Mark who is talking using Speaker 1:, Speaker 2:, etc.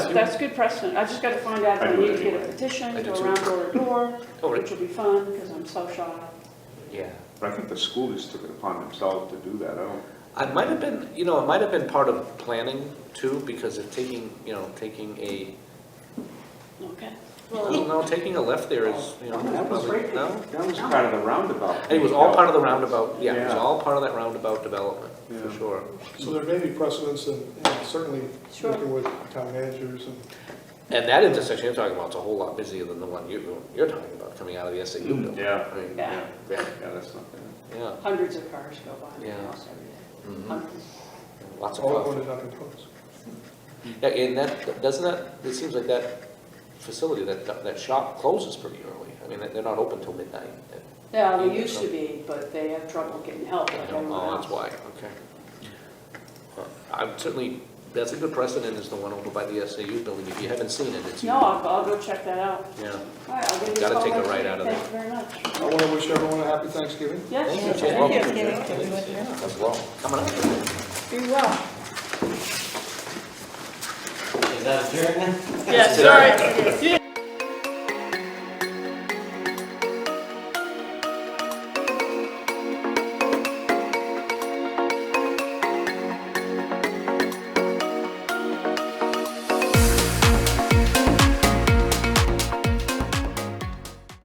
Speaker 1: that's good precedent. I just gotta find out if
Speaker 2: I
Speaker 1: I
Speaker 2: do it
Speaker 1: need to get a
Speaker 2: anyway.
Speaker 1: petition,
Speaker 3: I do
Speaker 1: go
Speaker 3: too.
Speaker 1: around door to door,
Speaker 3: Oh,
Speaker 1: which
Speaker 3: really?
Speaker 1: will be fun, because I'm so shy.
Speaker 3: Yeah.
Speaker 2: But I think the school just took it upon themselves to do that, I don't,
Speaker 3: I might have been, you know, it might have been part of planning too, because of taking, you know, taking a,
Speaker 1: Okay.
Speaker 3: no, no, taking a left there is, you know,
Speaker 2: that was
Speaker 3: probably,
Speaker 2: right,
Speaker 3: no?
Speaker 2: that was part of the roundabout.
Speaker 3: And it was all part of the roundabout, yeah, it was
Speaker 2: Yeah.
Speaker 3: all part of that roundabout development, for
Speaker 2: Yeah.
Speaker 3: sure.
Speaker 4: So there may be precedents and and certainly
Speaker 1: Sure.
Speaker 4: working with town managers and
Speaker 3: And that intersection you're talking about is a whole lot busier than the one you, you're talking about, coming out of the SAU building.
Speaker 2: Mm, Yeah.
Speaker 3: I mean,
Speaker 1: Yeah.
Speaker 3: Yeah,
Speaker 2: Yeah, that's not bad.
Speaker 3: yeah,
Speaker 1: Hundreds of cars go by my
Speaker 3: Yeah.
Speaker 1: house every day.
Speaker 3: mhm,
Speaker 1: Hundreds.
Speaker 3: lots of
Speaker 4: all
Speaker 3: traffic.
Speaker 4: appointed, not opposed.
Speaker 3: Yeah, and that, doesn't that, it seems like that facility, that, that shop closes pretty early. I mean, they're not open till midnight.
Speaker 1: Yeah, they used to be, but they have trouble getting help like everyone
Speaker 3: Oh,
Speaker 1: else.
Speaker 3: that's why, okay. Well, I'm certainly, that's a good precedent, is the one over by the SAU building. If you haven't seen it, it's.
Speaker 1: No, I'll, I'll go check that out.
Speaker 3: Yeah.
Speaker 1: All right, I'll give you a
Speaker 3: Gotta
Speaker 1: call
Speaker 3: take a
Speaker 1: next
Speaker 3: right
Speaker 1: week.
Speaker 3: out of
Speaker 1: Thank you very much.
Speaker 4: I want to wish everyone a happy Thanksgiving.
Speaker 3: Thank you,
Speaker 1: Yes,
Speaker 3: Jen.
Speaker 1: thank you.
Speaker 3: Yeah, As well, coming up.
Speaker 1: Be well.
Speaker 5: Is that a German?
Speaker 1: Yes, all right. See you.